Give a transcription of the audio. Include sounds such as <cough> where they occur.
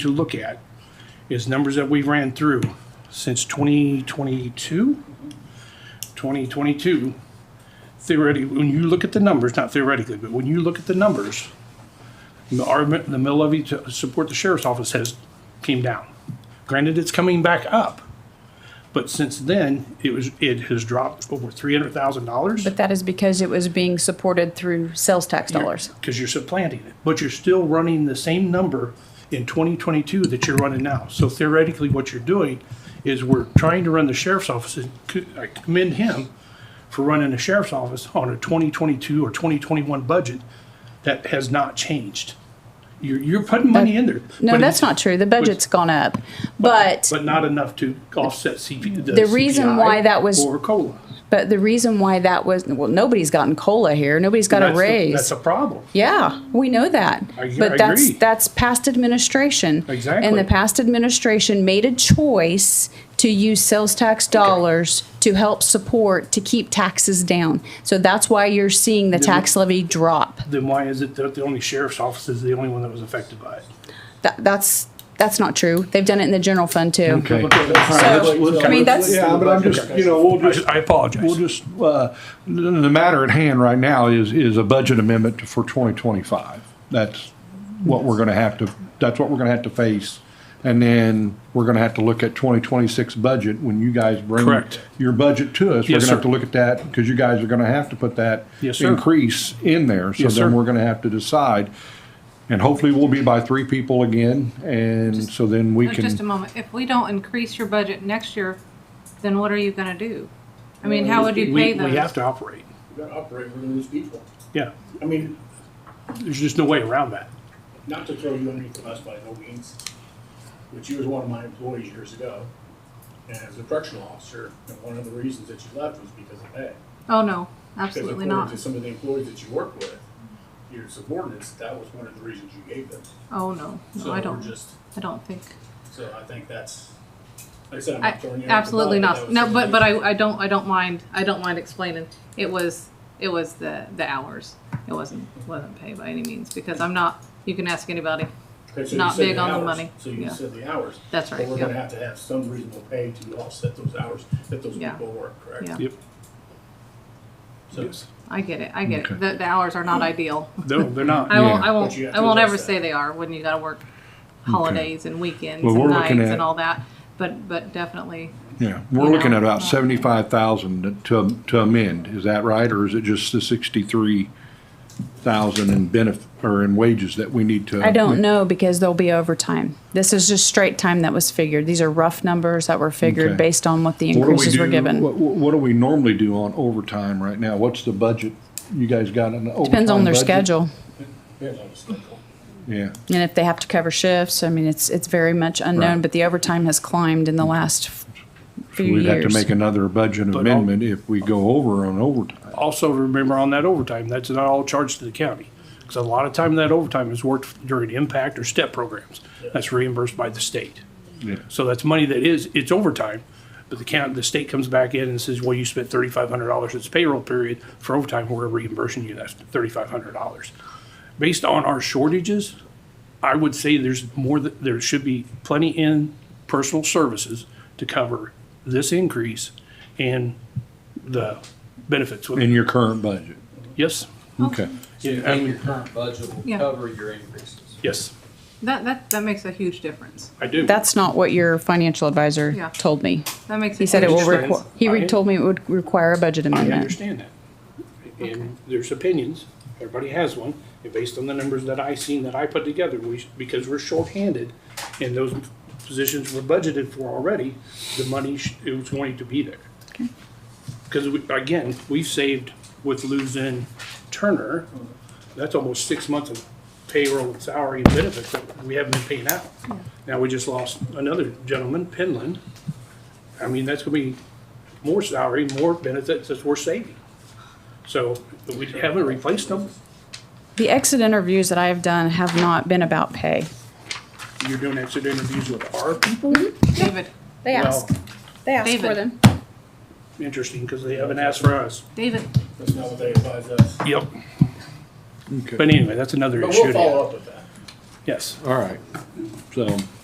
to look at is numbers that we ran through since 2022. 2022, theoretically, when you look at the numbers, not theoretically, but when you look at the numbers, our, mi- the mill levy to uh, support the sheriff's office has came down. Granted, it's coming back up, but since then, it was, it has dropped over $300,000. But that is because it was being supported through sales tax dollars. Because you're supplanting it, but you're still running the same number in 2022 that you're running now. So theoretically, what you're doing is we're trying to run the sheriff's office, and c- I commend him for running the sheriff's office on a 2022 or 2021 budget that has not changed. You're, you're putting money in there. No, but that's it's- not true. The budget's gone up. But, But not enough to offset CP, the The reason CPI why that was- Or COLA. but the reason why that was, well, nobody's gotten COLA here. Nobody's got a That's the- That's raise. a problem. Yeah, we know that. I- I But that's, agree. that's past administration. And Exactly. the past administration made a choice to use sales tax dollars to help support, to keep taxes down. So that's why you're seeing the tax levy drop. Then why is it that the only sheriff's office is the only one that was affected by it? That, that's, that's not true. They've done it in the general fund too. Okay. I mean, that's, Yeah, but I'm just, you know, we'll just, I apologize. we'll just, uh, the the matter at hand right now is, is a budget amendment for 2025. That's what we're going to have to, that's what we're going to have to face. And then we're going to have to look at 2026 budget when you guys bring Correct. your budget to us. We're going Yes, to have sir. to look at that because you guys are going to have to put that Yes, sir. increase in there. So Yes, then sir. we're going to have to decide. And hopefully we'll be by three people again. And so then we There's can. Just a moment. If we don't increase your budget next year, then what are you gonna do? I mean, how would you pay We, those? we have to operate. We're gonna operate, we're gonna lose people. Yeah, I mean, there's just no way around that. not to throw you underneath the bus by no means, but you was one of my employees years ago. And as a correctional officer, and one of the reasons that you left was because of pay. Oh, no, Because absolutely according not. to some of the employees that you work with, your subordinates, that was one of the reasons you gave them. Oh, no, So no, I we're don't, just, I don't think. so I think that's, like I said, I'm I, not throwing you. under the absolutely bus, not. that was No, some but, of but the- I, I don't, I don't mind, I don't mind explaining. It was, it was the, the hours. It wasn't, wasn't pay by any means, because I'm not, you can ask anybody. Okay, so you not said big the on the hours. money. So you Yeah. said the hours. That's right, But we're yeah. gonna have to have some reasonable pay to offset those hours that those Yeah. people work, correct? Yeah. Yep. So, I get it, I get Okay. it. The, the hours are not ideal. <laughs> No, they're not. I won't, Yeah. I But you have won't, I to won't ever address say that. they are when you gotta work holidays and weekends Well, we're and looking nights at- and all that. But, but definitely, Yeah, we're You looking know? at about seventy-five thousand to, to amend, is that right, or is it just the sixty-three thousand in benefit, or in wages that we need to? I don't know because there'll be overtime. This is just straight time that was figured. These are rough numbers that were figured Okay. based on what the What do we increases were do- given. What, what what do we normally do on overtime right now? What's the budget? You guys got an overtime Depends on their budget? schedule depends on the schedule. Yeah, and if they have to cover shifts. I mean, it's, it's very much unknown, Right. but the overtime has climbed in the last f- so few we'd have to years. make another budget I'll- amendment if we go over on overtime. Also, remember on that overtime, that's not all charged to the county. Because a lot of time that overtime is worked during impact or step programs. That's reimbursed by the state. Yeah. So that's money that is, it's overtime, but the county, the state comes back in and says, well, you spent thirty-five hundred dollars this payroll period for overtime, we're reimbursing you that thirty-five hundred dollars. Based on our shortages, I would say there's more, th- there should be plenty in personal services to cover this increase and the benefits. with- In your current budget, Yes, okay. So you Yeah, I think mean- your current budget will Yeah. cover your increases? yes, that, that, that makes a huge difference. I do. That's not what your financial Yeah. advisor told me. That makes. He said it will understand. require, he re- I- told me it would require a budget I amendment. understand that. And there's opinions, everybody has one, and based on the numbers that I seen that I put together, we, sh- because we're shorthanded and those positions were budgeted for already, the money, sh- it was going to be there. Because again, we've saved with losing Turner, that's almost six months of payroll, and salary and benefits that we haven't been paying out. Now, we just lost another gentleman, Penland. I mean, that's gonna be more salary, more benefits that we're saving. So we haven't replaced them. The exit interviews that I have done have not been about pay. You're doing exit interviews with our people? David, They Well, they ask David. Interesting, because they haven't asked for us. David, That's not what they advise us. Yep. Okay. But anyway, that's another But issue. we'll follow up with that. Yes. All right. So.